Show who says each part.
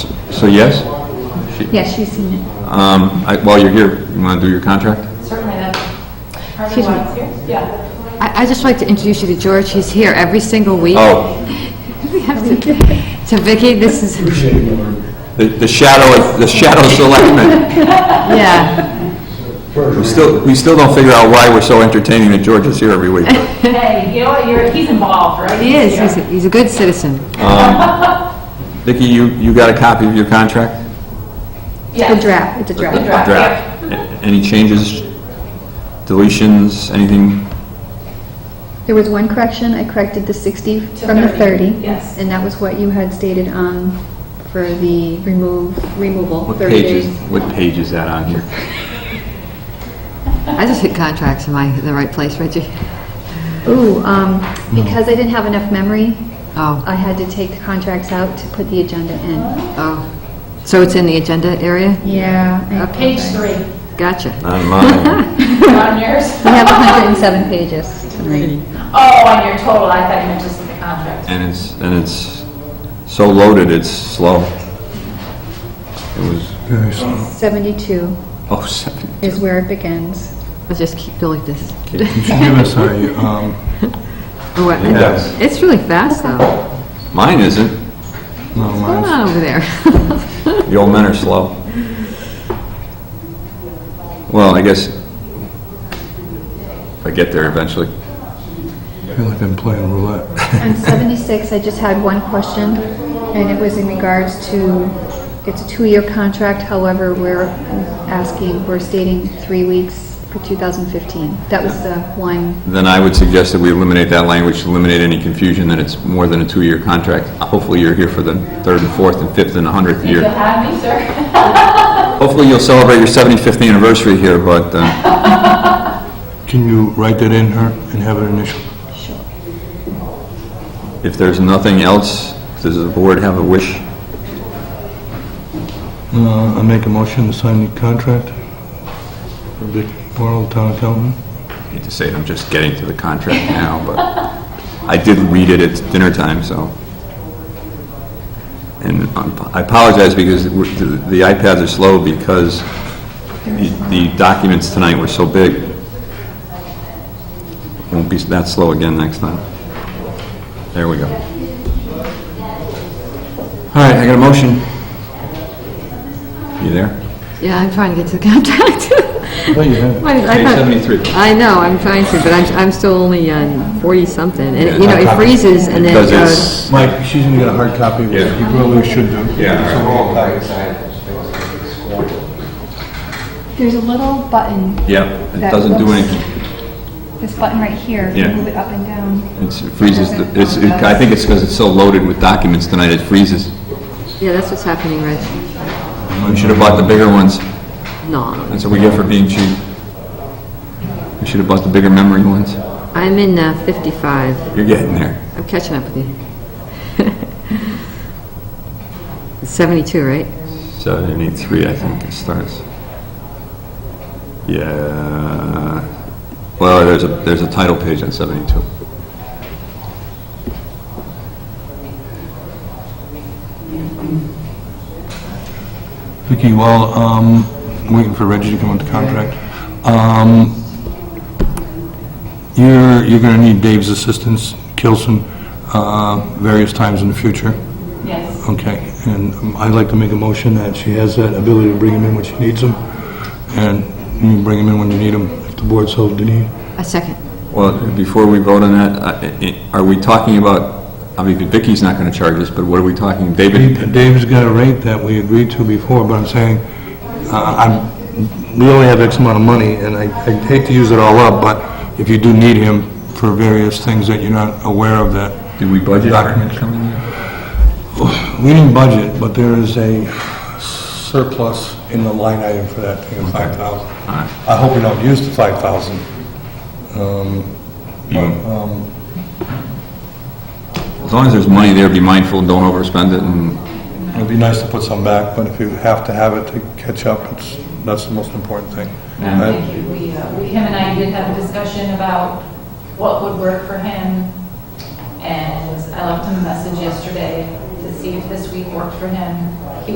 Speaker 1: So yes?
Speaker 2: Yes, she's seen it.
Speaker 1: Um, I- While you're here, you want to do your contract?
Speaker 3: Certainly not.
Speaker 2: Excuse me.
Speaker 3: Harvey Weinstein? Yeah.
Speaker 2: I, I just like to introduce you to George. He's here every single week.
Speaker 1: Oh,
Speaker 2: We have to, to Vicky, this is,
Speaker 1: the the shadow, the shadow selectman.
Speaker 2: yeah.
Speaker 1: We still, we still don't figure out why we're so entertaining that George is here every week.
Speaker 3: Hey, you know what, you're, he's involved, right?
Speaker 2: He is, he's,
Speaker 3: here.
Speaker 2: a- he's a good citizen.
Speaker 1: Vicki, you, you got a copy of your contract?
Speaker 3: Yes.
Speaker 2: Good draft, it's a
Speaker 3: Good
Speaker 2: draft.
Speaker 3: draft, yeah.
Speaker 1: A- Any changes, deletions, anything?
Speaker 4: There was one correction, I corrected the 60 from the
Speaker 3: 30,
Speaker 4: 30.
Speaker 3: yes.
Speaker 4: And that was what you had stated on for the remove, removal,
Speaker 1: What
Speaker 4: 30
Speaker 1: page is,
Speaker 4: days.
Speaker 1: what page is that on here?
Speaker 2: I just hit contracts, am I in the right place, Reggie?
Speaker 4: Ooh, um, because I didn't have enough memory,
Speaker 2: Oh,
Speaker 4: I had to take the contracts out to put the agenda in.
Speaker 2: oh. So it's in the agenda area?
Speaker 4: Yeah. I-
Speaker 3: Page three,
Speaker 2: Gotcha.
Speaker 1: On mine.
Speaker 3: on yours?
Speaker 4: We have 107 pages to read.
Speaker 3: Oh, on your total, I thought you meant just the contract.
Speaker 1: And it's, and it's so loaded, it's slow. It was,
Speaker 4: 72
Speaker 1: oh, seven.
Speaker 4: is where it begins.
Speaker 2: I'll just keep going like this.
Speaker 5: You should give us a, um,
Speaker 2: Oh, what-
Speaker 1: Yes.
Speaker 2: It's really fast, though.
Speaker 1: Mine isn't.
Speaker 5: no,
Speaker 2: Come
Speaker 5: mine's-
Speaker 2: on over there.
Speaker 1: The old men are slow. Well, I guess I get there eventually.
Speaker 5: I feel like I'm playing roulette.
Speaker 4: On 76, I just had one question, and it was in regards to, it's a two-year contract, however, we're asking, we're stating three weeks for 2015. That was the one,
Speaker 1: Then I would suggest that we eliminate that language, eliminate any confusion that it's more than a two-year contract. Hopefully, you're here for the third and fourth and fifth and a hundredth
Speaker 3: You'll
Speaker 1: year.
Speaker 3: have me, sir?
Speaker 1: Hopefully, you'll celebrate your 75th anniversary here, but uh,
Speaker 5: Can you write that in her and have it initialed?
Speaker 1: if there's nothing else, does the board have a wish?
Speaker 5: Uh, I make a motion to sign the contract for Vic Morrow, the town accountant.
Speaker 1: I hate to say it, I'm just getting to the contract now, but I did read it at dinner time, so. And I'm- I apologize because we're- the iPads are slow because the- the documents tonight were so big. Won't be that slow again next time. There we go. All right, I got a motion. You there?
Speaker 2: Yeah, I'm trying to get to the contract.
Speaker 5: Oh, you have it.
Speaker 2: Why did I
Speaker 1: Page
Speaker 2: thought-
Speaker 1: 73.
Speaker 2: I know, I'm trying to, but I'm, I'm still only on 40-something, and, you know, it freezes and then it
Speaker 1: Because
Speaker 2: goes.
Speaker 1: it's,
Speaker 5: Mike, she's gonna get a hard copy, which
Speaker 1: Yeah.
Speaker 5: you probably should do.
Speaker 1: Yeah, all right.
Speaker 5: So we're all copies.
Speaker 4: there's a little button,
Speaker 1: yeah, it doesn't do anything.
Speaker 4: this button right here,
Speaker 1: you Yeah. move
Speaker 4: it up and down.
Speaker 1: It's- It freezes, the- it's, it- I think it's because it's so loaded with documents tonight, it freezes.
Speaker 2: Yeah, that's what's happening, Reg.
Speaker 1: We should have bought the bigger ones,
Speaker 2: No,
Speaker 1: that's what we get for being cheap. We should have bought the bigger memory ones.
Speaker 2: I'm in uh, 55.
Speaker 1: You're getting there.
Speaker 2: I'm catching up with you. It's 72, right?
Speaker 1: Seventy-three, I think it starts. Yeah, well, there's a, there's a title page on seventy-two.
Speaker 5: Vicky, while, um, waiting for Reggie to come with the contract, um, you're, you're gonna need Dave's assistance, Kilson, uh, various times in the future.
Speaker 3: Yes.
Speaker 5: Okay, and um, I'd like to make a motion that she has that ability to bring him in when she needs him, and you bring him in when you need him, if the board so need.
Speaker 2: A second.
Speaker 1: Well, before we vote on that, I- I- are we talking about, I mean, Vicky's not gonna charge us, but what are we talking, David?
Speaker 5: Dave's got a rate that we agreed to before, but I'm saying, uh, I'm, we only have X amount of money, and I I hate to use it all up, but if you do need him for various things that you're not aware of that.
Speaker 1: Did we budget?
Speaker 5: Documents
Speaker 1: coming in?
Speaker 5: We didn't budget, but there is a surplus in the line item for that thing of 5,000. I hope we don't use the 5,000.
Speaker 1: Um, As long as there's money there, be mindful, don't overspend it, and
Speaker 5: It'd be nice to put some back, but if you have to have it to catch up, it's, that's the most important thing.
Speaker 3: Um,
Speaker 5: I-
Speaker 3: Thank you. We, uh, we- him and I did have a discussion about what would work for him, and I left him a message yesterday to see if this week worked for him. He